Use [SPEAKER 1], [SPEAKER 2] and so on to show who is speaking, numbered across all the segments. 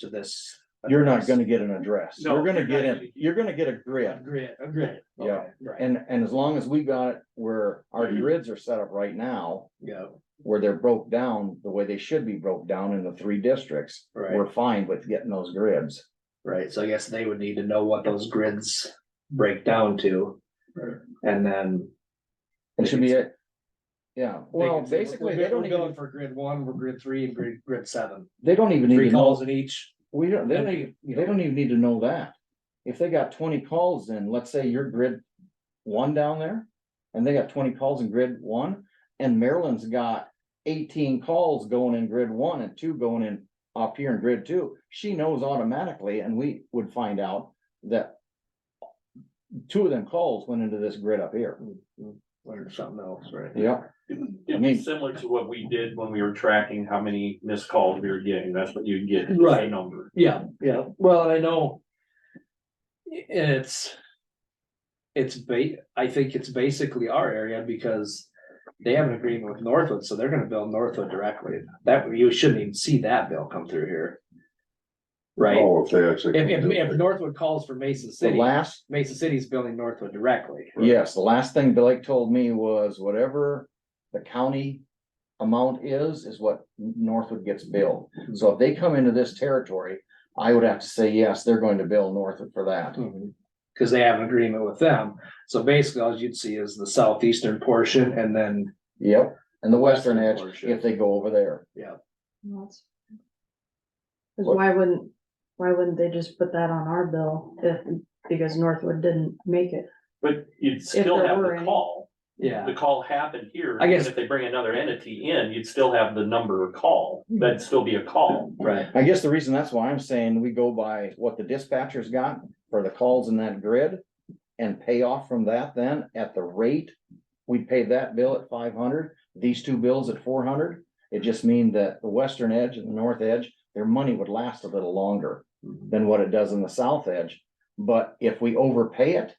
[SPEAKER 1] to this.
[SPEAKER 2] You're not gonna get an address.
[SPEAKER 1] No,
[SPEAKER 2] You're gonna
[SPEAKER 1] you're
[SPEAKER 2] get
[SPEAKER 1] not
[SPEAKER 2] in,
[SPEAKER 1] gonna-
[SPEAKER 2] you're gonna get a grid.
[SPEAKER 1] Grid, a grid.
[SPEAKER 2] Yeah.
[SPEAKER 1] Okay, Right,
[SPEAKER 2] And, and as long as we got it where our
[SPEAKER 1] Mm-hmm.
[SPEAKER 2] grids are set up right now,
[SPEAKER 1] yeah,
[SPEAKER 2] where they're broke down the way they should be broke down in the three districts.
[SPEAKER 1] Right.
[SPEAKER 2] We're fine with getting those grids.
[SPEAKER 1] right, so I guess they would need to know what those grids break down to. And then.
[SPEAKER 2] It should be it. Yeah,
[SPEAKER 1] they
[SPEAKER 2] well,
[SPEAKER 1] can say, "We're-
[SPEAKER 2] basically,
[SPEAKER 1] we're-
[SPEAKER 2] they don't
[SPEAKER 1] We're going
[SPEAKER 2] even,
[SPEAKER 1] for grid one, we're grid three, and grid, grid seven,
[SPEAKER 2] they don't even need
[SPEAKER 1] three
[SPEAKER 2] to know,
[SPEAKER 1] calls in each.
[SPEAKER 2] we don't, they
[SPEAKER 1] and,
[SPEAKER 2] don't even,
[SPEAKER 1] you
[SPEAKER 2] they
[SPEAKER 1] know,
[SPEAKER 2] don't even need to know that. If they got twenty calls in, let's say your grid one down there, and they got twenty calls in grid one, and Maryland's got eighteen calls going in grid one and two going in up here in grid two, she knows automatically, and we would find out that two of them calls went into this grid up here.
[SPEAKER 1] Learn something else, right?
[SPEAKER 2] Yeah,
[SPEAKER 3] It'd be similar to what we did when we were tracking how many missed calls we were getting. That's what you'd get. is the
[SPEAKER 1] Right.
[SPEAKER 3] Number.
[SPEAKER 1] Yeah, yeah, well, and I know. i- It's. It's ba- I think it's basically our area because they have an agreement with Northwood, so they're gonna bill Northwood directly. That, you shouldn't even see that bill come through here. Right?
[SPEAKER 4] Oh, if they actually.
[SPEAKER 1] If, if, if Northwood calls for Mason
[SPEAKER 2] the
[SPEAKER 1] City,
[SPEAKER 2] last
[SPEAKER 1] Mason City's billing Northwood directly.
[SPEAKER 2] Yes, the last thing Blake told me was whatever the county amount is, is what Northwood gets billed. So if they come into this territory, I would have to say, yes, they're going to bill Northwood for that.
[SPEAKER 1] Mhm. Cause they have an agreement with them. So basically, all you'd see is the southeastern portion and then,
[SPEAKER 2] Yep, and the western edge,
[SPEAKER 1] Portion.
[SPEAKER 2] if they go over there.
[SPEAKER 5] Well, that's- Cause
[SPEAKER 2] What-
[SPEAKER 5] why wouldn't, why wouldn't they just put that on our bill if, because Northwood didn't make it?
[SPEAKER 3] But you'd still
[SPEAKER 5] there
[SPEAKER 3] have
[SPEAKER 5] were
[SPEAKER 3] the
[SPEAKER 5] any.
[SPEAKER 3] call.
[SPEAKER 1] yeah.
[SPEAKER 3] The call happened here.
[SPEAKER 1] I guess-
[SPEAKER 3] and If they bring another entity in, you'd still have the number of call.
[SPEAKER 5] Hmm.
[SPEAKER 3] That'd still be a call.
[SPEAKER 1] Right.
[SPEAKER 2] I guess the reason that's why I'm saying we go by what the dispatcher's got for the calls in that grid. And pay off from that then at the rate, we'd pay that bill at five hundred, these two bills at four hundred. It just mean that the western edge and the north edge, their money would last a little longer than what it does in the south edge. But if we overpay it,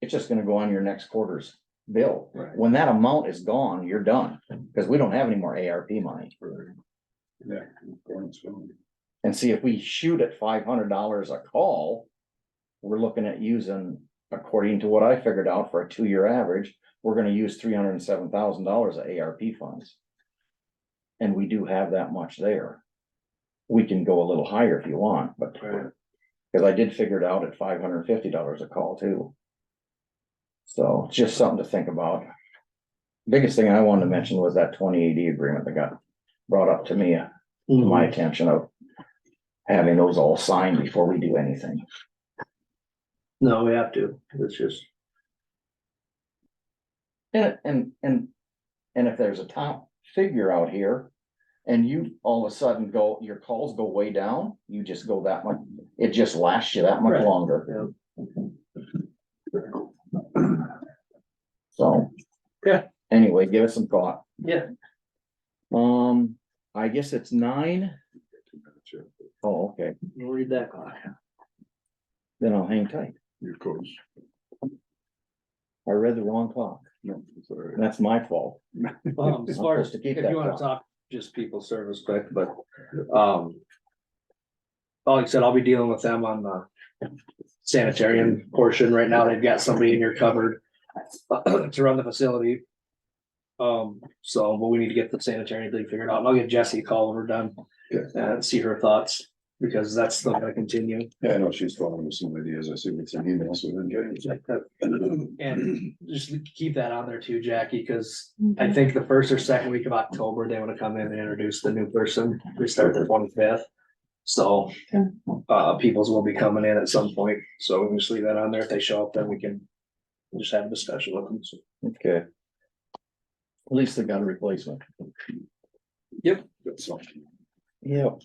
[SPEAKER 2] it's just gonna go on your next quarter's bill.
[SPEAKER 1] Right.
[SPEAKER 2] When that amount is gone, you're done, because we don't have any more ARP money. And see if we shoot at five hundred dollars a call. We're looking at using, according to what I figured out for a two-year average, we're gonna use three hundred and seven thousand dollars of ARP funds. And we do have that much there. We can go a little higher if you want, but.
[SPEAKER 1] Right.
[SPEAKER 2] Cause I did figure it out at five hundred and fifty dollars a call too. So it's just something to think about. Biggest thing I wanted to mention was that twenty eighty agreement that got brought up to me to my attention of having those all signed before we do anything.
[SPEAKER 1] No, we have to. It's just.
[SPEAKER 2] And, and, and, and if there's a top figure out here and you all of a sudden go, your calls go way down, you just go that much, it just lasts you that much
[SPEAKER 1] Right.
[SPEAKER 2] longer.
[SPEAKER 1] Yeah.
[SPEAKER 2] So.
[SPEAKER 1] Yeah.
[SPEAKER 2] Anyway, give it some thought.
[SPEAKER 1] Yeah.
[SPEAKER 2] Um, I guess it's nine. Oh, okay,
[SPEAKER 1] We'll read that clock.
[SPEAKER 2] then I'll hang tight.
[SPEAKER 4] Of course.
[SPEAKER 2] I read the wrong clock.
[SPEAKER 4] No, it's all right.
[SPEAKER 2] That's my fault.
[SPEAKER 1] Um, as far
[SPEAKER 2] I'm
[SPEAKER 1] as,
[SPEAKER 2] supposed to
[SPEAKER 1] if
[SPEAKER 2] keep
[SPEAKER 1] you
[SPEAKER 2] that
[SPEAKER 1] wanna
[SPEAKER 2] clock.
[SPEAKER 1] talk just people service quick, but, um. Like I said, I'll be dealing with them on the sanitarian portion right now. They've got somebody in here covered to run the facility. Um, so, but we need to get the sanitary thing figured out. And I'll give Jesse a call when we're done
[SPEAKER 4] Okay.
[SPEAKER 1] and see her thoughts, because that's still gonna continue.
[SPEAKER 4] Yeah, I know she's following some ideas. I see what's in emails. so then get it.
[SPEAKER 1] And just keep that on there too, Jackie, because I think the first or second week of October, they wanna come in and introduce the new person. We start the twenty fifth. So,
[SPEAKER 5] Okay.
[SPEAKER 1] uh, peoples will be coming in at some point, so we can just leave that on there. If they show up, then we can just have a discussion with them. So,
[SPEAKER 2] Okay. At least they got a replacement.
[SPEAKER 4] That's something.
[SPEAKER 2] Yep.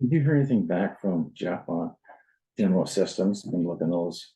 [SPEAKER 2] Did you hear anything back from Jeff on general assistance and look in those